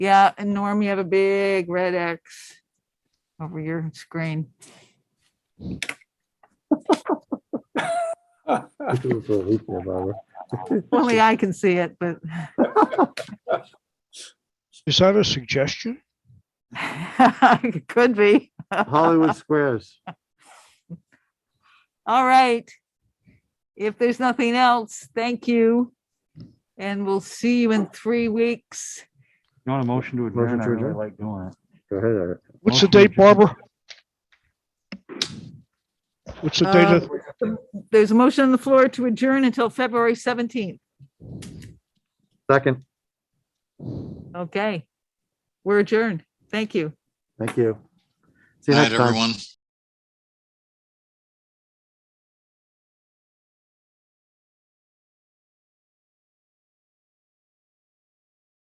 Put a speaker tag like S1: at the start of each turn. S1: Yeah, and Norm, you have a big red X over your screen.
S2: This was for a week now, Barbara.
S1: Only I can see it, but
S3: Is that a suggestion?
S1: it could be.
S2: Hollywood Squares.
S1: All right. If there's nothing else, thank you. And we'll see you in three weeks.
S4: You want a motion to
S2: Motion
S4: adjourn? I
S2: to
S4: really
S2: adjourn.
S4: like doing it.
S2: Go ahead, Art.
S3: What's the
S4: Motion to
S3: date, Barbara? What's the date of,
S1: Uh, There's a motion on the floor to adjourn until February 17th.
S2: Second,
S1: Okay. We're adjourned. Thank you.
S2: thank you. See you
S5: Night,
S2: next time.
S5: everyone.